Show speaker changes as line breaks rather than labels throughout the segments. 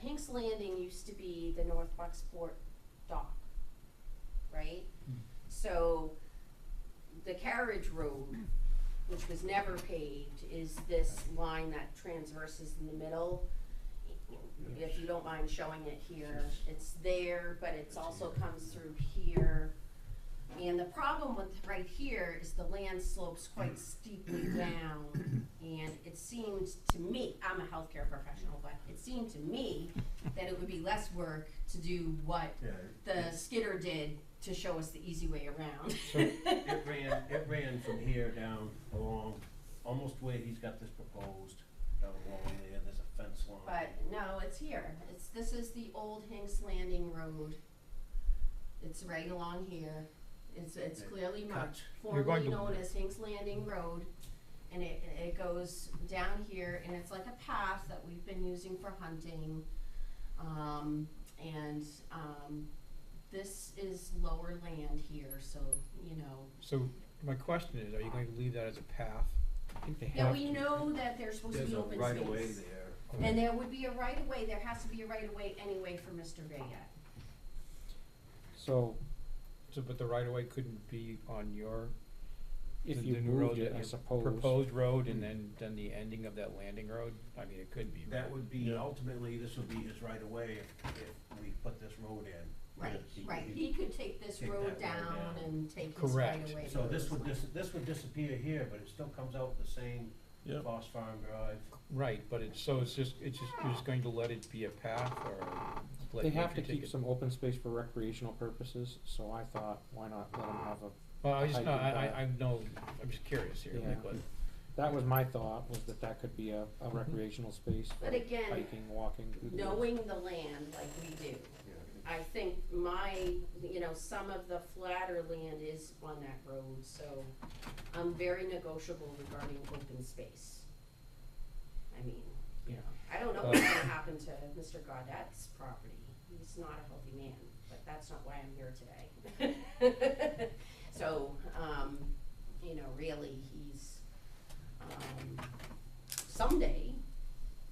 Hinks Landing used to be the North Bucksport dock, right? So the carriage road, which was never paved, is this line that transverses in the middle. If you don't mind showing it here, it's there, but it's also comes through here. And the problem with right here is the land slopes quite steeply down. And it seemed to me, I'm a healthcare professional, but it seemed to me that it would be less work to do what
Yeah.
the skidder did to show us the easy way around.
So it ran, it ran from here down along, almost where he's got this proposed, down along there, there's a fence line.
But no, it's here. It's, this is the old Hinks Landing Road. It's right along here. It's, it's
It
clearly marked,
cuts.
You're going
formerly
to-
known as Hinks Landing Road. And it, it goes down here and it's like a path that we've been using for hunting. Um, and, um, this is lower land here, so, you know,
So my question is, are you going to leave that as a path? I think they have
Yeah, we
to.
know that there's supposed to
There's
be
a
open space.
right of way there.
Okay.
And there would be a right of way, there has to be a right of way anyway for Mr. Vega.
So, so but the right of way couldn't be on your,
If
the-
you
the new
moved
road
it,
that
I
you-
suppose. Hmm.
Proposed road and then, then the ending of that landing road, I mean, it could be, right?
That would be,
Yeah.
ultimately, this would be his right of way if, if we put this road in.
Right,
He-
right,
he-
he could take this
Take that
road
road
down
down.
and take his right
Correct.
of way.
So this would dis, this would disappear here, but it still comes out the same
Yeah.
Foss Farm Drive.
Right, but it's, so it's just, it's just, you're just going to let it be a path or let
They
nature
have to
take
keep
it?
some open space for recreational purposes, so I thought, why not let them have a,
Well, I just,
I
no,
do
I,
that.
I, I'm no, I'm just curious here,
Yeah.
like, what,
that was my thought, was that that could be a, a
Mm-hmm.
recreational space for
But again,
hiking, walking. through the woods.
Knowing the land like we do, I think my, you know, some of the flatter land is on that road, so I'm very negotiable regarding open space. I mean, you know, I don't know what's gonna happen to Mr. Gaudette's property, he's not a healthy man, but that's not why I'm here today. So, um, you know, really, he's, um, someday,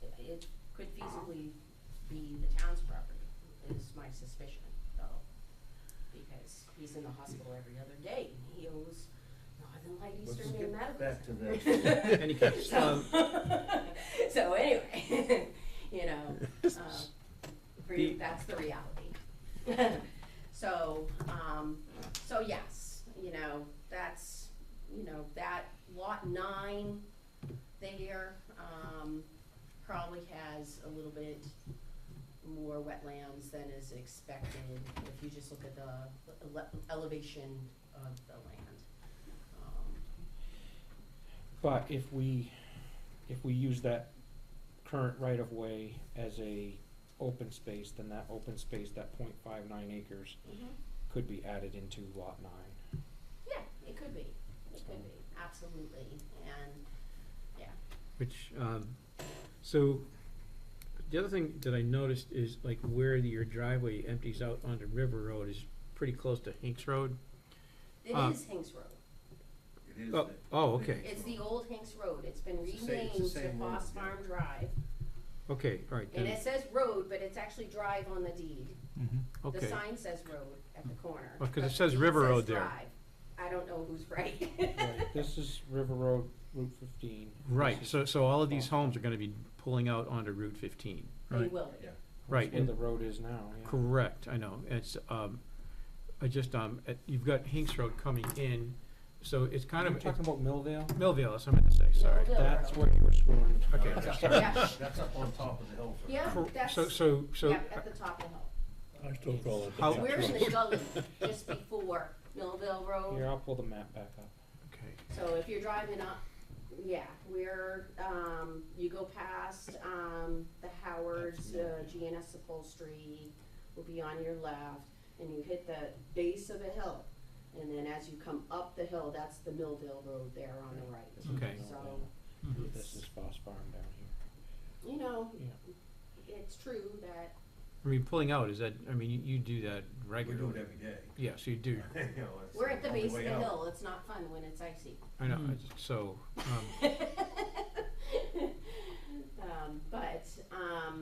it- it could feasibly be the town's property, is my suspicion, though. Because he's in the hospital every other day, and he owes Northern Light
Let's
Eastern Maine
get
Medical.
back to
Center.
this.
Any um,
So,
case,
so anyway, you know, um, re-
The-
that's the reality. So, um, so yes, you know, that's, you know, that lot nine there, um, probably has a little bit more wetlands than is expected if you just look at the ele- elevation of the land. Um,
But if we, if we use that current right of way as a open space, then that open space, that point five nine acres, could be added into lot nine.
Yeah, it could be, it could be, absolutely, and,
Which, um, so, the other thing that I noticed is like where your driveway empties out onto River Road is pretty close to Hinks Road. Uh,
it is Hinks Road.
It is
Oh,
the-
oh, okay.
It's the old Hinks Road, it's been
It's the same- it's the
renamed to
same road,
Foss
yeah.
Farm Drive,
Okay, all right,
and
then,
it says road, but it's actually drive on the deed. The
okay.
sign says road at the corner.
Oh, 'cause it
but
says
the deed
River
says
Road there.
drive. I don't know who's right.
Right, this is River Road, Route fifteen. This
Right,
is-
so, so all of these homes are gonna be pulling out onto Route fifteen.
They will be.
Yeah.
that's
right,
Where
and-
the road is now, yeah.
Correct, I know, it's, um, I just, um, uh, you've got Hinks Road coming in, so it's kind
You're
of,
talking about Millvale?
Millville, that's what I meant to say, sorry.
Millville
That's
Road.
where you were screwing.
Okay,
That's up-
Yeah.
That's up on top of the hill. for-
Yeah,
Cor-
that's,
So, so, so,
yeah, at the top of the hill.
I still call it. the
How-
Oh.
beach
We're in
road.
the gully just before Millville Road.
Here, I'll pull the map back up.
okay,
So if you're driving up, yeah, we're, um, you go past, um, the Howard's, uh, GNS upholstery will be on your left, and you hit the base of the hill. And then as you come up the hill, that's the Millville Road there on the
This is
right.
Okay.
So,
Millvale. This is Foss Farm down here.
you know,
Yeah.
it's true that,
I mean, pulling out, is that, I mean, you- you do that
We
regularly.
do it every day.
Yes, you do,
You know, it's
we're at the
only
base of the
way out.
hill, it's not fun when it's icy.
I know,
Mm.
it's- so, um,
Um, but, um,